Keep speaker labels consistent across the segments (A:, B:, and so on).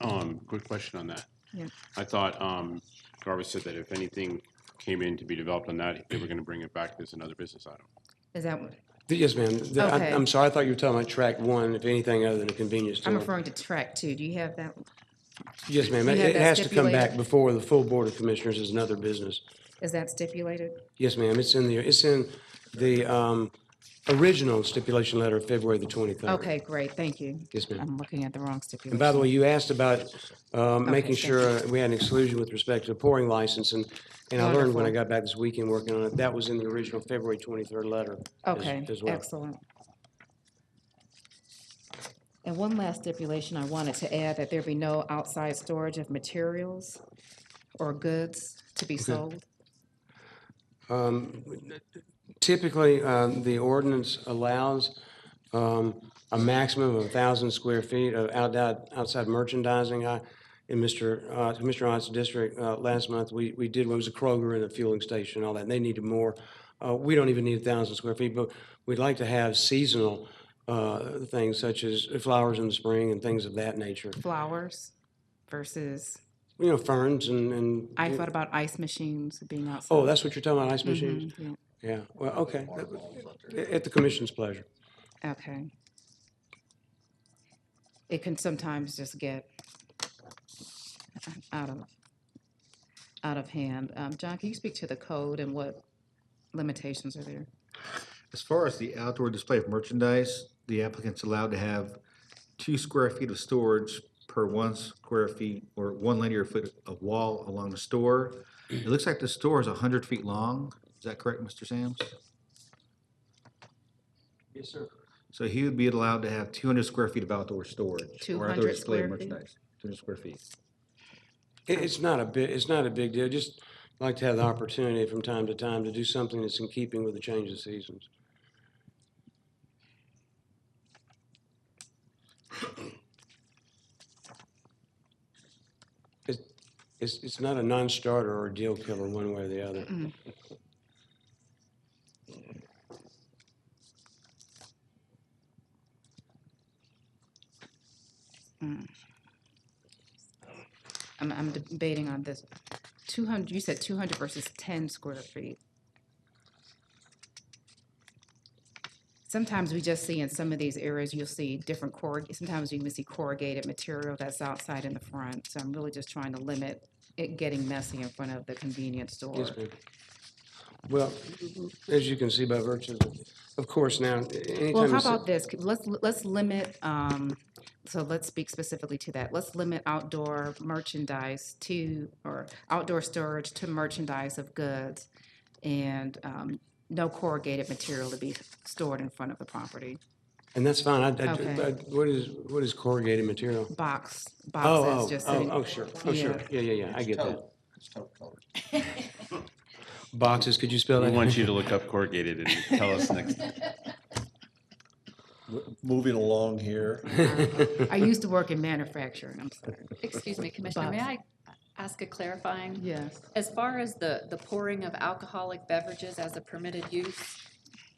A: Um, good question on that.
B: Yeah.
A: I thought, um, Garvis said that if anything came in to be developed on that, they were gonna bring it back as another business item.
B: Is that, what-
C: Yes, ma'am. The- I'm-
B: Okay.
C: I'm sorry, I thought you were talking about track one, if anything other than a convenience
B: I'm
C: store.
B: referring to track two. Do you have that?
C: Yes, ma'am.
B: you
C: It
B: have
C: it
B: that
C: has to come
B: stipulated?
C: back before the full Board of Commissioners is another business.
B: Is that stipulated?
C: Yes, ma'am. It's in the, it's in the um, original stipulation letter of February the 23rd.
B: Okay, great, thank you.
C: Yes, ma'am.
B: I'm looking at the wrong
C: And by the
B: stipulation.
C: way, you asked about um, making
B: thank
C: sure uh, we had an exclusion with respect to the pouring license, and, and I learned when I got back this weekend working on it, that was in the original February 23rd letter. as-
B: Okay,
C: as well.
B: excellent. And one last stipulation I wanted to add, that there be no outside storage of materials or goods to be sold.
C: Typically, uh, the ordinance allows um, a maximum of 1,000 square feet of outdi- outside merchandising. I- In Mr. Ott- Mr. Ott's district, uh, last month, we we did, it was a Kroger and a fueling station and all that, and they needed more. Uh, We don't even need 1,000 square feet, but we'd like to have seasonal uh, things such as flowers in the spring and things of that nature.
B: Flowers versus,
C: You know, ferns and- and,
B: I thought about ice machines being outside.
C: oh, that's what you're talking about, ice machines?
B: Mhm,
C: Yeah, well, okay. At the commission's pleasure.
B: yeah, Okay. It can sometimes just get out of, out of hand. Um, John, can you speak to the code and what limitations are there?
D: As far as the outdoor display of merchandise, the applicant's allowed to have two square feet of storage per one square feet or one linear foot of wall along the store. It looks like the store is hundred feet long. Is that correct, Mr. Sams?
C: Yes, sir.
D: So he would be allowed to have two hundred square feet of outdoor storage. or outdoor
B: 200
D: display of
B: square feet?
D: merchandise. Two hundred square feet.
C: It, it's not a big, it's not a big deal, just like to have the opportunity from time to time to do something that's in keeping with the change of seasons. It's, it's, it's not a non-starter or a deal killer one way or the other.
B: I'm, I'm debating on this. Two hundred, you said two hundred versus ten square feet. Sometimes we just see in some of these areas, you'll see different corrug, sometimes you can see corrugated material that's outside in the front. So I'm really just trying to limit it getting messy in front of the convenience store.
C: Yes, ma'am. Well, as you can see by virtue, of of course, now, anytime.
B: Well, how
C: it's-
B: about this? C- Let's, let's limit, um, so let's speak specifically to that. Let's limit outdoor merchandise to, or outdoor storage to merchandise of goods and, um, no corrugated material to be stored in front of the property.
C: And that's fine, I, I-
B: Okay.
C: I- what is, what is corrugated material?
B: Box,
C: Oh,
B: boxes
C: oh,
B: just
C: oh,
B: sitting.
C: oh, sure, oh, sure, yeah, yeah, yeah, I get that.
E: It's tote colored.
C: Boxes, could you spell
A: We
C: that?
A: want you to look up corrugated and tell us next.
E: M- Moving along here,
B: I used to work in manufacturing, I'm sorry.
F: Excuse me, Commissioner, may I ask a clarifying?
B: Yes.
F: As far as the, the pouring of alcoholic beverages as a permitted use,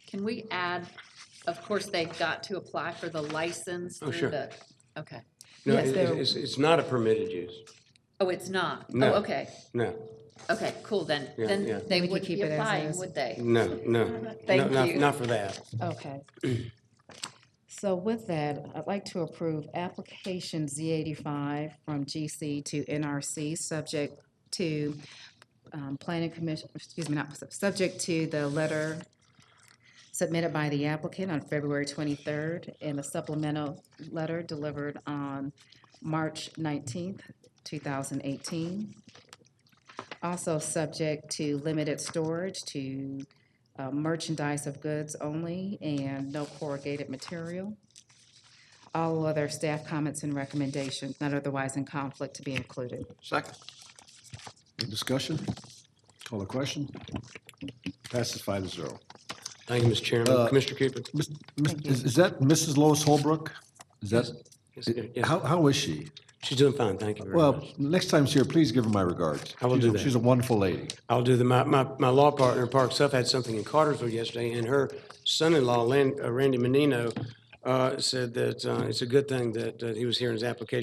F: can we add, of course, they've got to apply for the license
C: Oh,
F: through
C: sure.
F: the, okay.
C: No,
B: Yes,
C: it-
B: they're-
C: it's, it's not a permitted use,
F: Oh, it's not?
C: No.
F: Oh, okay,
C: no,
F: okay, cool, then,
C: Yeah, yeah.
F: then they
B: We could
F: wouldn't
B: keep
F: be
B: it as
F: applying,
B: is.
F: would they?
C: no, no. no,
F: Thank
C: not-
F: you.
C: Not for that.
B: Okay. So with that, I'd like to approve application Z eighty-five from GC to NRC, subject to um, planning commission, excuse me, not, sub- subject to the letter submitted by the applicant on February twenty-third and a supplemental letter delivered on March nineteenth, two thousand eighteen. Also subject to limited storage to uh, merchandise of goods only and no corrugated material. All other staff comments and recommendations not otherwise in conflict to be included.
E: Second. Any discussion? Call the question? Passes five to zero.
C: Thank you, Mr. Chairman. Commissioner Cooper?
E: Mis- mis- Is is that Mrs. Lois Holbrook? Is that,
C: Yes, yes.
E: how, how is she?
C: She's doing fine, thank you very
E: Well,
C: much.
E: next time she's here, please give her my regards.
C: I will
E: She's
C: do
E: a-
C: that.
E: She's a wonderful lady.
C: I'll do the, my, my, my law partner, Park Suff, had something in Cartersville yesterday, and her son-in-law, Lan- uh, Randy Menino, uh, said that uh, it's a good thing that uh, he was here in his application